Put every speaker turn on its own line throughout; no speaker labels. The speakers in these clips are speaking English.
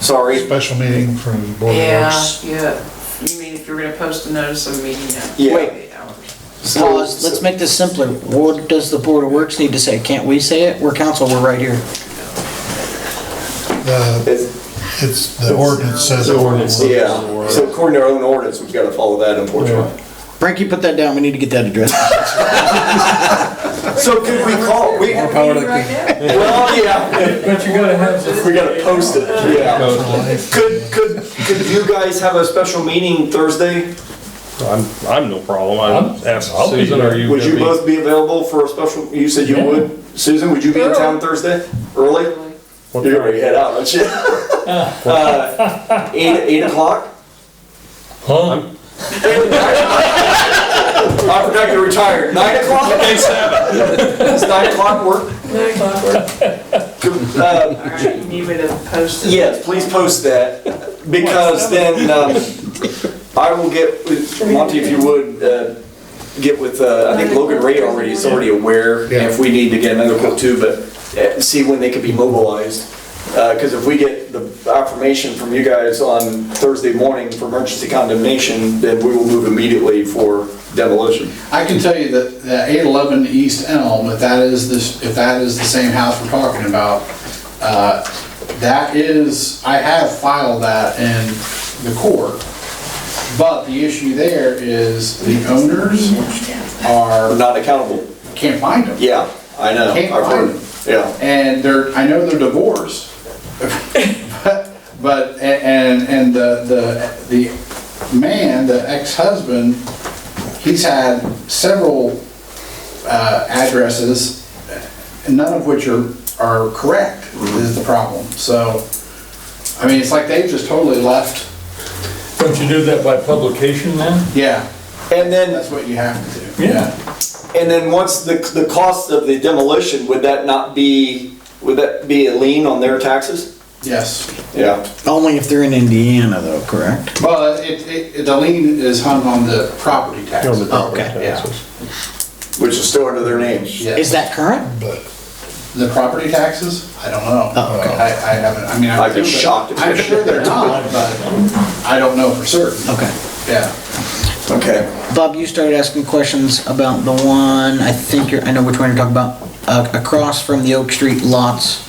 sorry.
Special meeting from Board of
Yeah,
Works.
yeah. You mean if you were gonna post a notice of meeting at
Yeah.
eight hours?
So-
Well, let's let's make this simpler. What does the Board of Works need to say? Can't we say it? We're council, we're right here.
The-
It's-
It's, the ordinance says.
The ordinance,
Yeah, so according to our own ordinance, we've got to follow that unfortunately.
Frankie, put that down, we need to get that addressed.
So could we call, we,
More power to the king.
well, yeah,
But you gotta have the
we got to post it, yeah. Could, could, could you guys have a special meeting Thursday?
I'm, I'm no problem. I'm, abs- I'll be
Susan, are
here.
you?
Would you
gonna be-
both be available for a special, you said you
Yeah.
would? Susan, would you be in town Thursday? Early?
What
You're
time?
gonna head out, aren't you? Uh, Eight, eight o'clock?
Huh?
I forgot you're retired. Nine o'clock? Okay, seven. Does nine o'clock work?
Nine o'clock.
Uh,
All right, you need me to post it?
Yes, please post that, because then um, I will get, with Monty, if you would, uh, get with, uh, I think Logan Ray already is already aware, and if we need to get another quote too, but uh, see when they could be mobilized. Because if we get the affirmation from you guys on Thursday morning for emergency condemnation, then we will move immediately for demolition.
I can tell you that, that eight eleven East Elm, if that is this, if that is the same house we're talking about, uh, that is, I have filed that in the court. But the issue there is the owners
We're
are,
not accountable.
can't find them.
Yeah, I know.
Can't
I've heard. Yeah.
And they're, I know they're divorced, but, but, and, and the, the, the man, the ex-husband, he's had several, uh, addresses, none of which are, are correct, is the problem. So, I mean, it's like they've just totally left,
Don't you do that by publication then?
yeah,
And then
that's what you have to do,
Yeah.
yeah.
And then once the, the cost of the demolition, would that not be, would that be a lien on their taxes?
Yes.
Yeah.
Only if they're in Indiana though, correct?
Well, it, it, the lien is hung on the property tax.
On the
property
Okay,
taxes.
yeah.
Which is still under their name.
Yes.
Is that current?
The property taxes? I don't know.
Oh, okay.
I, I haven't, I mean, I'm
I'd be
sure-
shocked if
I'm
they-
sure they're not, but I don't know for certain,
Okay.
yeah.
Okay.
Bob, you started asking questions about the one, I think you're, I know which one you're talking about, uh, across from the Oak Street lots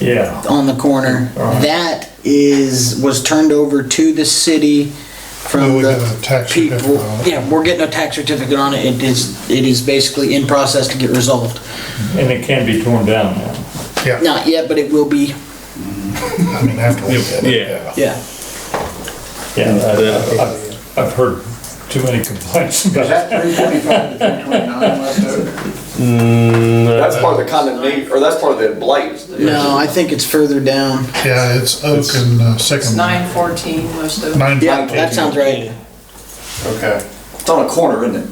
Yeah.
on the corner. That is, was turned over to the city
Well,
from
we
the
got a tax
people.
certificate on it.
Yeah, we're getting a tax certificate on it. It is, it is basically in process to get resolved.
And it can be torn down now.
Yeah,
Not yet, but it will be,
I mean, after we get it,
Yeah.
yeah.
yeah.
Yeah, I- I've, I've heard too many complaints
Is
about it.
that three twenty-five to three twenty-nine left over?
That's part of the condemnation, or that's part of the blight.
No, I think it's further down.
Yeah, it's Oak and uh,
It's
Sycamore.
nine fourteen, most of it.
Nine
Yeah,
fourteen.
that sounds right.
Okay.
It's on a corner, isn't it?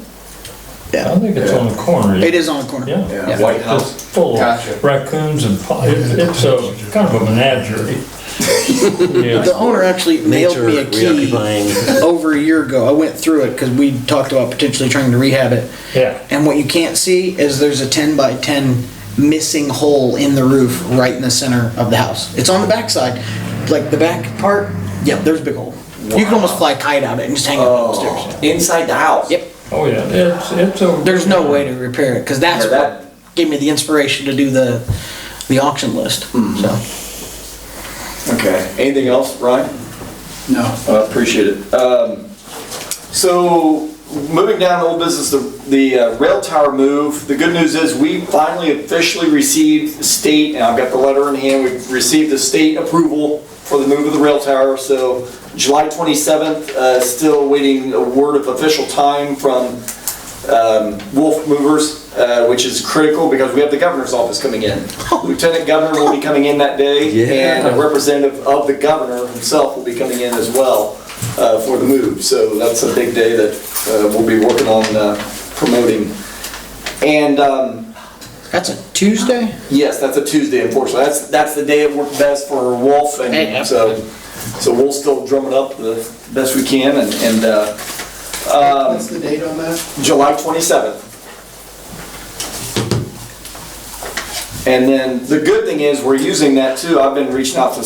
I don't think it's on the corner.
It is on the corner.
Yeah.
Yeah.
White House.
It's full
Gotcha.
of raccoons and, po- it- it's a, kind of a menagerie. Yeah.
The owner actually mailed me a
Nature
key
reoccupying.
over a year ago. I went through it because we talked about potentially trying to rehab it.
Yeah.
And what you can't see is there's a 10 by 10 missing hole in the roof right in the center of the house. It's on the backside, like the back part. Yep, there's a big hole. You can almost fly a kite out it and just hang it up the stairs.
Inside the house.
Yep.
Oh, yeah, it's, it's a.
There's no way to repair it because that's
Yeah, that-
what gave me the inspiration to do the the auction list. So
Okay. Anything else, Ryan?
No.
Uh, Appreciate it. Um, So, moving down to old business, the the uh, rail tower move, the good news is we finally officially received state, and I've got the letter in hand, we've received the state approval for the move of the rail tower, so July 27th, uh, still waiting a word of official time from um, Wolf Movers, uh, which is critical because we have the governor's office coming in. Lieutenant Governor will be coming in that day, and a representative of the governor himself will be coming in as well uh, for the move. So that's a big day that uh, we'll be working on uh, promoting. And um,
that's a Tuesday.
yes, that's a Tuesday, unfortunately. That's, that's the day it worked best for Wolf,
Hey,
and so, so we'll still drum it up the best we can, and- and uh, um,
What's the date on that?
July 27th. And then the good thing is, we're using that too. I've been reaching out to